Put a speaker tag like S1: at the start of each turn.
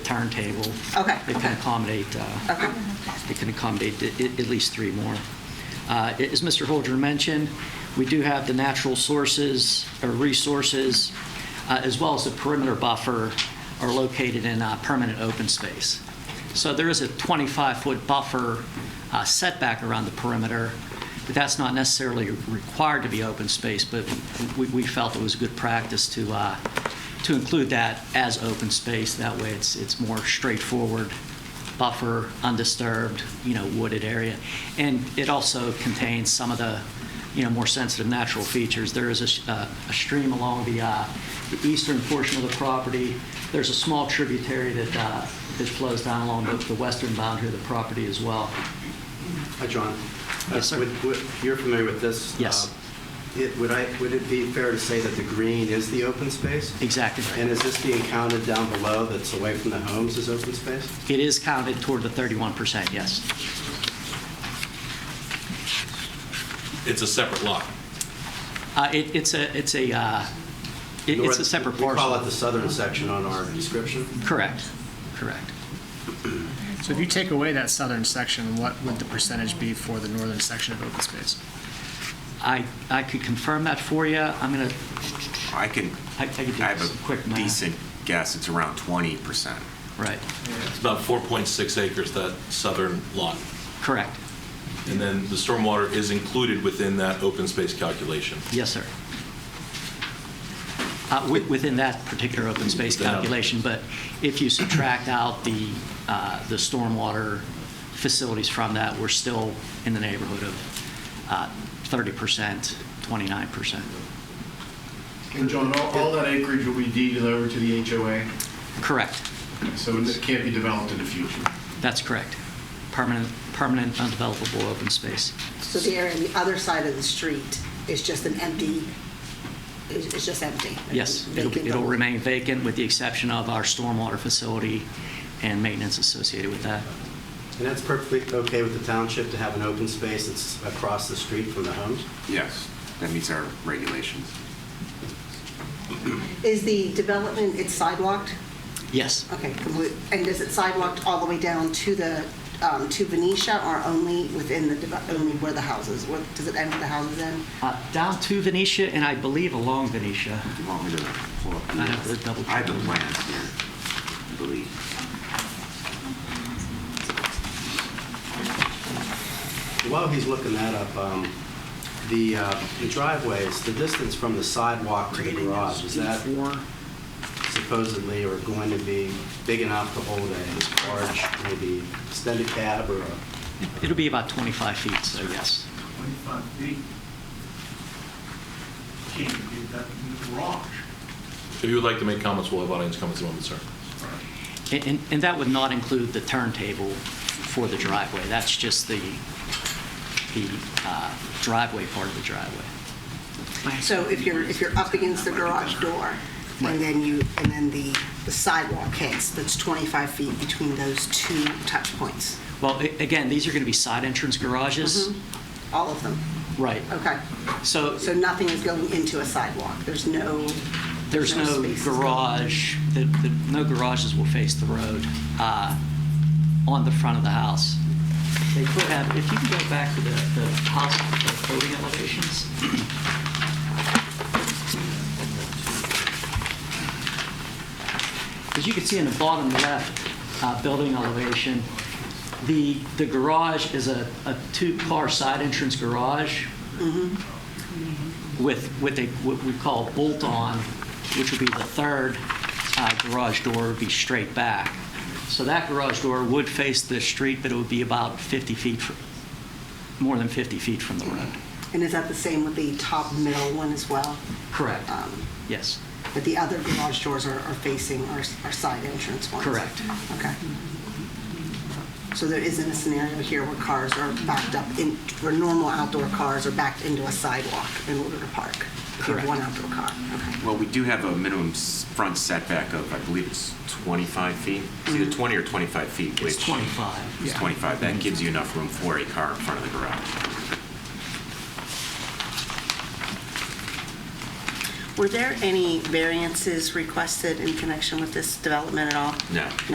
S1: turntable.
S2: Okay,
S1: It
S2: okay.
S1: can accommodate, uh,
S2: Okay.
S1: it can accommodate at- at at least three more. Uh, As Mr. Holder mentioned, we do have the natural sources, or resources, uh, as well as the perimeter buffer are located in uh, permanent open space. So there is a 25-foot buffer uh, setback around the perimeter, but that's not necessarily required to be open space, but we- we felt it was good practice to, uh, to include that as open space. That way, it's, it's more straightforward buffer, undisturbed, you know, wooded area. And it also contains some of the, you know, more sensitive natural features. There is a, sh- uh, a stream along the, uh, the eastern portion of the property. There's a small tributary that, uh, that flows down along the, the western boundary of the property as well.
S3: Hi, John.
S1: Yes, sir.
S3: Uh, would- would- You're familiar with this?
S1: Yes.
S3: Uh, it- Would I, would it be fair to say that the green is the open space?
S1: Exactly.
S3: And is this being counted down below that's away from the homes as open space?
S1: It is counted toward the 31%, yes.
S4: It's a separate lot.
S1: Uh, it, it's a, it's a, uh, it- it's a
S3: North-
S1: separate
S3: We call it the
S1: parcel.
S3: southern section on our description.
S1: Correct, correct.
S5: So if you take away that southern section, what would the percentage be for the northern section of open space?
S1: I, I could confirm that for you. I'm going to
S6: I can,
S1: I- I could do
S6: I have
S1: some quick
S6: a
S1: math.
S6: decent guess, it's around 20%.
S1: Right,
S4: It's about 4.6 acres, that southern lot.
S1: correct.
S4: And then the stormwater is included within that open space calculation.
S1: Yes, sir. Uh, wi- Within that particular open space
S4: Within that.
S1: calculation, but if you subtract out the, uh, the stormwater facilities from that, we're still in the neighborhood of uh, 30%, 29%.
S7: And John, all, all that acreage will be deeded over to the HOA,
S1: Correct,
S7: so it can't be developed in the future.
S1: that's correct. Permanent, permanent undevelopable open space.
S2: So the area on the other side of the street is just an empty, it's it's just empty?
S1: Yes, it'll,
S2: Vacant
S1: it'll
S2: lot.
S1: remain vacant with the exception of our stormwater facility and maintenance associated with that.
S3: And that's perfectly okay with the township to have an open space that's across the street from the homes?
S6: Yes, that meets our regulations.
S2: Is the development, it's sidewalked?
S1: Yes,
S2: Okay, complete, and is it sidewalked all the way down to the, um, to Venetia or only within the, deve- only where the houses, where, does it end with the houses end?
S1: Uh, down to Venetia and I believe along Venetia.
S6: You want me to pull up?
S1: I have to double
S6: I have the
S1: check.
S6: plans here, I believe.
S3: While he's looking that up, um, the uh, the driveways, the distance from the sidewalk to the garage, is that supposedly are going to be big enough to hold a large, maybe extended cab or a...
S1: It'll be about 25 feet, so yes.
S8: 25 feet. Can't get that in the garage.
S4: If you would like to make comments, we'll have audience comments in a moment, sir.
S1: And, and- and that would not include the turntable for the driveway. That's just the, the uh, driveway part of the driveway.
S2: So if you're, if you're up against the garage door,
S1: Right.
S2: and then you, and then the the sidewalk hits, that's 25 feet between those two touch points,
S1: Well, a- again, these are going to be side entrance garages.
S2: all of them,
S1: Right.
S2: okay?
S1: So
S2: So nothing is going into a sidewalk, there's no...
S1: there's no
S2: spaces.
S1: garage, the- the- no garages will face the road uh, on the front of the house. They could have, if you can go back to the the house the building elevations. As you can see in the bottom left uh, building elevation, the, the garage is a, a two-car side entrance garage with, with a, what we call bolt-on, which would be the third uh, garage door, would be straight back. So that garage door would face the street, but it would be about 50 feet, fr- more than 50 feet from the road.
S2: And is that the same with the top middle one as well?
S1: Correct.
S2: Um,
S1: Yes,
S2: But the other garage doors are are facing our our side entrance ones?
S1: Correct.
S2: Okay. So there isn't a scenario here where cars are backed up, in where normal outdoor cars are backed into a sidewalk in order to park? If you have
S1: Correct.
S2: one outdoor car, okay.
S6: Well, we do have a minimum s- front setback of, I believe it's 25 feet. It's either 20 or 25 feet,
S1: Mm-hmm.
S6: which...
S1: it's 25.
S6: It's 25. That gives you enough room for a car in front of the garage.
S2: Were there any variances requested in connection with this development at all?
S6: No.